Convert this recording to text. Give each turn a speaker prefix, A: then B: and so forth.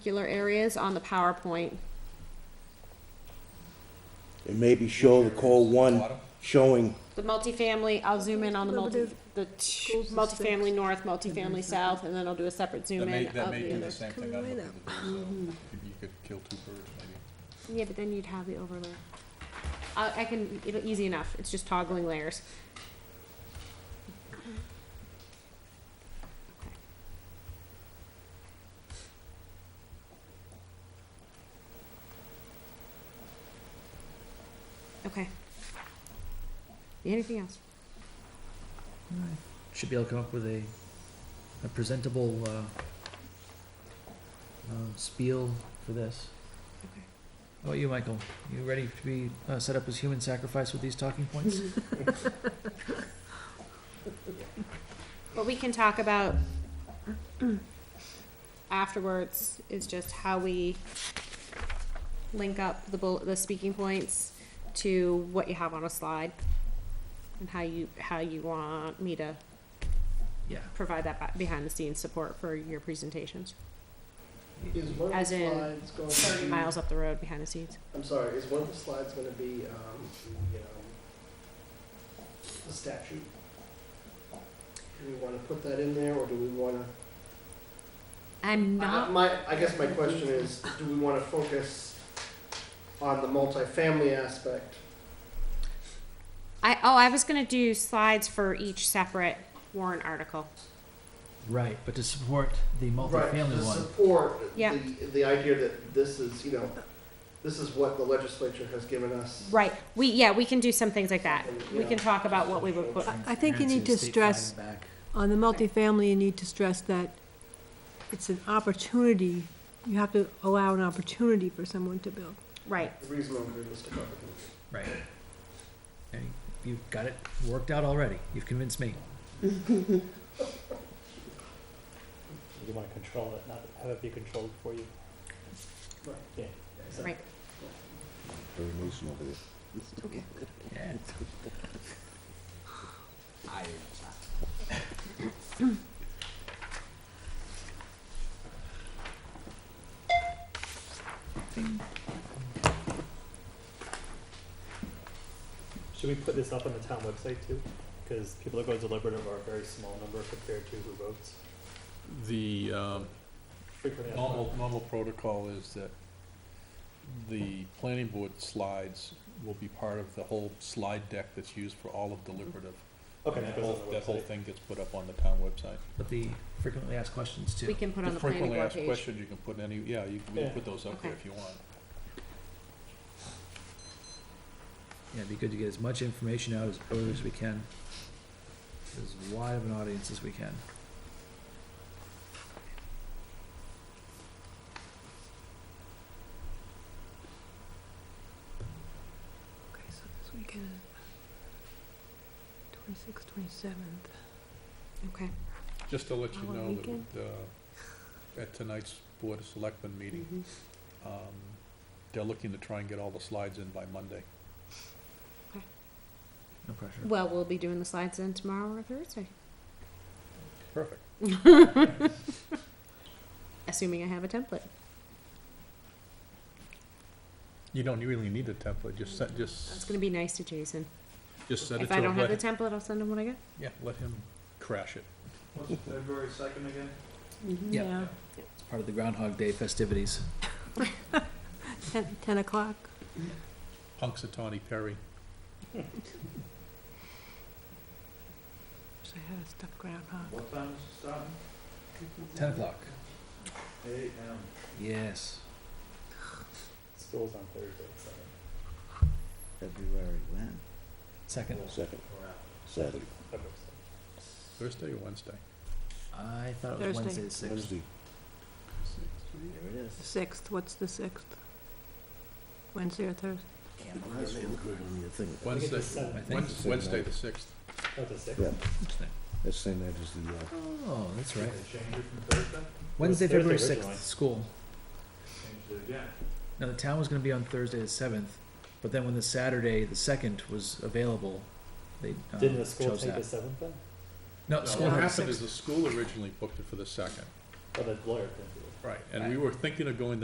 A: particular areas on the PowerPoint.
B: and maybe show the call one showing,
A: The multifamily, I'll zoom in on the multi,
C: Conservative
A: the t-
C: goals and
A: multifamily north,
C: sticks.
A: multifamily south, and then I'll do a separate zoom
D: That may,
A: in
D: that
A: of
D: may
A: the
D: be the
A: other.
D: same
C: Coming
D: thing I'm looking
C: right
D: to
C: up.
D: do, so maybe you could kill two birds, maybe.
A: Yeah, but then you'd have the overlay. I, I can, it'll, easy enough, it's just toggling layers. Okay. Anything else?
E: Should be able to come up with a, a presentable, uh, uh, spiel for this.
A: Okay.
E: How about you, Michael? You ready to be, uh, set up as human sacrifice with these talking points?
A: What we can talk about afterwards is just how we link up the bull, the speaking points to what you have on a slide. And how you, how you want me to
E: Yeah.
A: provide that ba- behind the scenes support for your presentations.
F: Is one of
A: As
F: the
A: in
F: slides going
A: Thirty
F: to be,
A: miles up the road behind the scenes.
F: I'm sorry, is one of the slides going to be, um, the, um, the statute? Do we want to put that in there, or do we want to?
A: I'm not,
F: My, I guess my question is, do we want to focus on the multifamily aspect?
A: I, oh, I was gonna do slides for each separate warrant article.
E: Right, but to support the
F: Right,
E: multifamily
F: to
E: one,
F: support
A: Yeah.
F: the, the idea that this is, you know, this is what the legislature has given us.
A: Right, we, yeah, we can do some things like that. We
F: Yeah.
A: can talk about what we would put,
C: I think you need to stress, on the multifamily, you need to stress that it's an opportunity. You have to allow an opportunity for someone to build.
A: right,
F: Reasonable, and realistic.
E: Right. And you've got it worked out already. You've convinced me.
G: You want to control it, not have it be controlled for you.
A: right.
B: very nice over there.
E: Yeah.
G: Should we put this up on the town website too? Because people that go deliberative are a very small number compared to who votes.
D: The, um,
G: Frequently, that's
D: normal, normal protocol is that the planning board slides will be part of the whole slide deck that's used for all of deliberative.
G: not- okay,
D: And
G: that
D: that
G: goes
D: whole,
G: on the
D: that whole
G: website.
D: thing gets put up on the town website.
E: But the frequently asked questions
A: We
E: too.
A: can put on the planning
D: frequently
A: board
D: asked
A: page.
D: questions, you can put any, yeah, you can, we can
G: Yeah.
D: put those up there
A: Okay.
D: if you want.
E: Yeah, it'd be good to get as much information out as early as we can. As wide of an audience as we can.
C: Okay, so this weekend, twenty-sixth, twenty-seventh.
A: Okay.
D: Just to let you
C: Our
D: know
C: weekend.
D: that, uh, at tonight's Board of Selectmen meeting,
E: Mm-hmm.
A: Mhm.
D: um, they're looking to try and get all the slides in by Monday.
E: No pressure.
A: Well, we'll be doing the slides then tomorrow or Thursday,
D: Perfect.
A: assuming I have a template.
D: You don't really need a template, just set,
A: That's
D: just,
A: gonna be nice to Jason.
D: just set it
A: If
D: to
A: I
D: him,
A: don't have the
D: let,
A: template, I'll send him what I got.
D: yeah, let him crash it.
F: February second again?
E: Yeah. It's part of the Groundhog Day festivities.
C: Ten, ten o'clock.
D: Punxsutawney Perry.
C: Wish I had a stuffed groundhog.
F: What time is it starting?
E: Ten o'clock.
F: Eight
E: Yes.
G: School's on Thursday, so,
B: February when?
E: Second.
B: Second, Saturday,
G: okay, so.
D: Thursday or Wednesday?
E: I thought it was Wednesday
C: Thursday.
E: the sixth.
B: Wednesday.
C: The sixth, what's the sixth? Wednesday or Thursday?
B: Nice look good on your thing.
G: I think it's the
D: Wednesday,
G: seventh,
E: I think.
D: Wednes- Wednesday the sixth.
G: not the sixth.
B: Yeah.
E: Interesting.
B: That's same night as the, uh,
E: Oh, that's right.
G: It was Thursday
E: Wednesday, February
G: originally.
E: sixth, school. Now, the town was gonna be on Thursday the seventh, but then when the Saturday, the second was available, they, uh,
G: Didn't the school
E: chose
G: take the
E: that.
G: seventh then?
E: No,
D: No,
E: school
D: what
E: had
D: happened
E: six.
D: is the school originally booked it for the second.
G: Or the lawyer didn't do it?
D: Right, and we were thinking of going